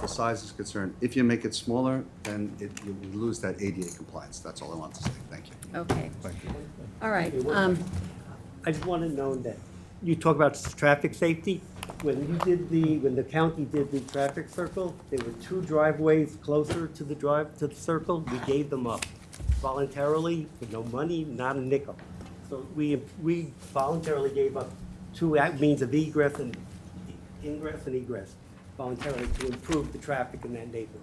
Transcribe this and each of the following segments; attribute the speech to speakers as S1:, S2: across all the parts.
S1: the size is concerned. If you make it smaller, then it, you lose that ADA compliance. That's all I want to say. Thank you.
S2: Okay,
S1: Thank you.
S2: all right. Um,
S3: I just want to know that, you talk about s- traffic safety. When you did the, when the county did the traffic circle, there were two driveways closer to the drive, to the circle. We gave them up voluntarily, with no money, not a nickel. So we, we voluntarily gave up two a- means of egress and, ingress and egress voluntarily to improve the traffic in that neighborhood.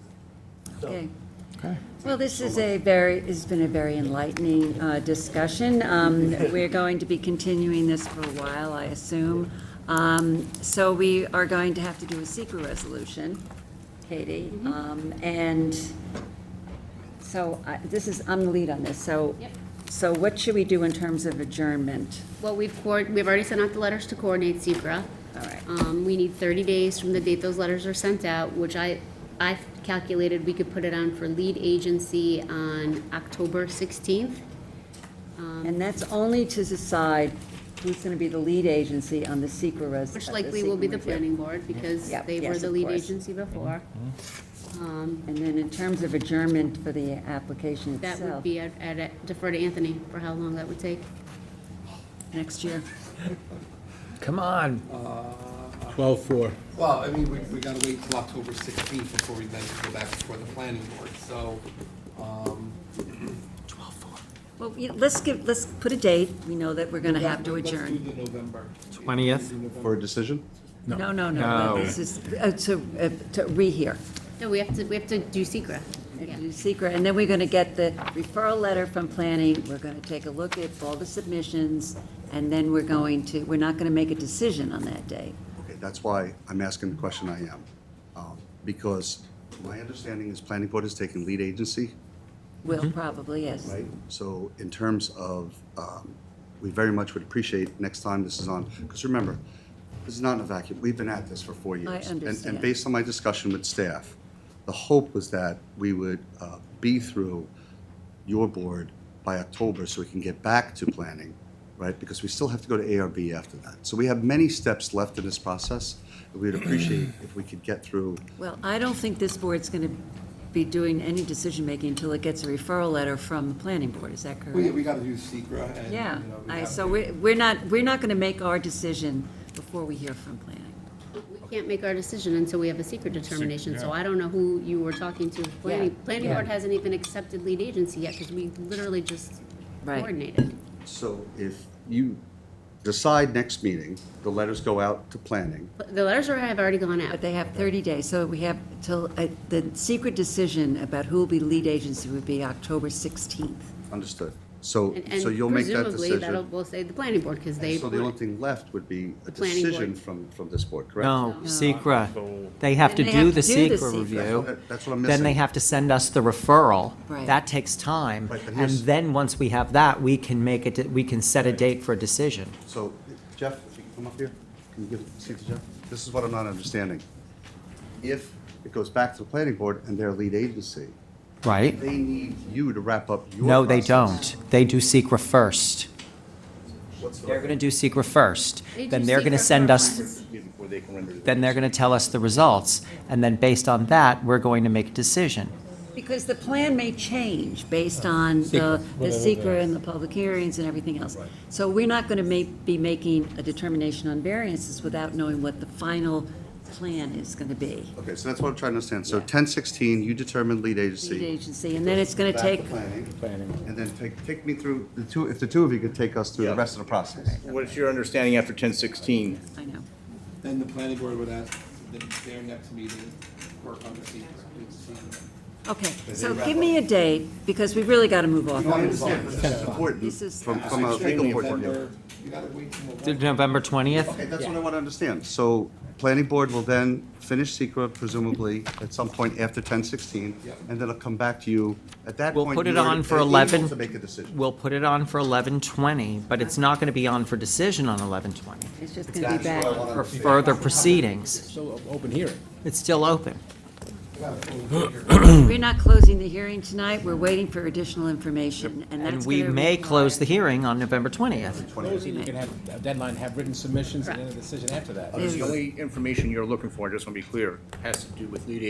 S3: So-
S2: okay. Well, this is a very, it's been a very enlightening uh, discussion. Um, We're going to be continuing this for a while, I assume. Um, So we are going to have to do a secret resolution, Katie. Um, And so I- this is, I'm the lead on this, so.
S4: Yep.
S2: So what should we do in terms of adjournment?
S4: Well, we've coor, we've already sent out the letters to coordinate Secra.
S2: All right.
S4: Um, we need thirty days from the date those letters are sent out, which I, I've calculated we could put it on for lead agency on October sixteenth.
S2: And that's only to decide who's going to be the lead agency on the secret res.
S4: Which
S2: uh,
S4: likely will be
S2: secret review.
S4: the planning board, because
S2: Yep,
S4: they were
S2: yes,
S4: the
S2: of
S4: lead
S2: course. Mm-hmm.
S4: agency before. Um,
S2: And then in terms of adjournment for the application
S4: that would
S2: itself,
S4: be, I'd, I'd defer to Anthony for how long that would take.
S2: next year.
S5: Come on.
S6: Twelve four.
S7: Well, I mean, we, we gotta wait till October sixteenth before we then go back before the planning board, so, um.
S2: Well, you- let's give, let's put a date, we know that we're going to have to
S7: let's do
S2: adjourn.
S7: the November.
S5: 20th?
S1: For a decision?
S2: No, no, no,
S5: No.
S2: this is, uh, to, uh, to rehear.
S4: No, we have to, we have to do Secra. Yeah.
S2: Secret, and then we're going to get the referral letter from planning, we're going to take a look at all the submissions, and then we're going to, we're not going to make a decision on that day.
S1: Okay, that's why I'm asking the question I am. Um, Because my understanding is planning board is taking lead agency,
S2: Will probably, yes.
S1: right? So in terms of, um, we very much would appreciate next time this is on, because remember, this is not in a vacuum. We've been at this for four years. And-
S2: understand.
S1: And based on my discussion with staff, the hope was that we would uh, be through your board by October so we can get back to planning, right? Because we still have to go to ARB after that. So we have many steps left in this process. We'd appreciate if we could get through
S2: Well, I don't think this board's going to be doing any decision-making until it gets a referral letter from the planning board, is that
S7: We,
S2: correct?
S7: we gotta do Secra and, you
S2: Yeah,
S7: know, we
S2: I,
S7: have
S2: so
S7: to-
S2: we're, we're not, we're not going to make our decision before we hear from planning.
S4: We can't make our decision until we have a secret determination, so I don't know who you were talking to. Planning,
S2: Yeah.
S4: planning board hasn't even accepted lead agency yet, because we literally just
S2: Right.
S4: coordinated.
S1: So if you decide next meeting, the letters go out to planning.
S4: But The letters are, have already gone out.
S2: But they have 30 days, so we have till, uh, the secret decision about who will be lead agency would be October 16th.
S1: Understood. So,
S4: And-
S1: so
S4: and
S1: you'll make that
S4: Presumably, that'll,
S1: decision.
S4: we'll say the planning board, because they,
S1: So the only thing left would be a
S4: Planning
S1: decision
S4: board.
S1: from, from this board, correct?
S5: No, secra. They have to
S2: Then they have
S5: do the
S2: to do the
S5: secra
S2: secra.
S5: review.
S1: That's what I'm
S5: Then they
S1: missing.
S5: have to send us the referral.
S2: Right.
S5: That takes time.
S1: Right, but
S5: And
S1: here's-
S5: then, once we have that, we can make it, we can set a date for a decision.
S1: So Jeff, if you can come up here, can you give a seat to Jeff? This is what I'm not understanding. If it goes back to the planning board and their lead agency,
S5: Right?
S1: they need you to wrap up your.
S5: No, they
S1: process.
S5: don't. They do secra first.
S1: What's the-
S5: They're going to do secra first.
S4: They
S5: Then
S4: do
S5: they're going to
S4: secra
S5: send us,
S4: first.
S6: Before they can render the-
S5: then they're going to tell us the results. And then, based on that, we're going to make a decision.
S2: Because the plan may change based on the, the secret and the public hearings and everything else. So we're not gonna ma- be making a determination on variances without knowing what the final plan is gonna be.
S1: Okay, so that's what I'm trying to understand. So ten sixteen, you determine lead agency.
S2: Lead agency, and then it's gonna
S1: Back
S2: take,
S1: to planning. And then take, take me through, the two, if the two of you could take us through the
S6: Yeah.
S1: rest of the process.
S6: What's your understanding after ten sixteen?
S2: I know,
S7: Then the planning board would ask, then their next meeting, work on the Secra, do the Secra.
S2: okay, so give me a date, because we really gotta move off.
S1: No, I
S2: of this.
S1: understand, but this is important
S2: This is-
S1: from, from a legal
S6: Extremely
S1: point of view.
S7: November- You gotta wait till November.
S5: November 20th?
S1: Okay, that's what I want to understand. So, planning board will then finish secret presumably at some point after ten sixteen,
S7: Yep.
S1: and then it'll come back to you. At that
S5: We'll
S1: point,
S5: put it
S1: you're
S5: on for
S1: able
S5: 11.
S1: To make a decision.
S5: We'll put it on for eleven twenty, but it's not gonna be on for decision on eleven twenty,
S2: It's just gonna be back.
S5: for further proceedings.
S6: So open hearing.
S5: It's still open.
S2: We're not closing the hearing tonight, we're waiting for additional information, and that's
S5: And we
S2: gonna
S5: may
S2: require-
S5: close the hearing on November twentieth.
S6: Closing, you can have a deadline, have written submissions, and then a decision after that.
S2: There's-
S6: The only information you're looking for, I just want to be clear, has to do with lead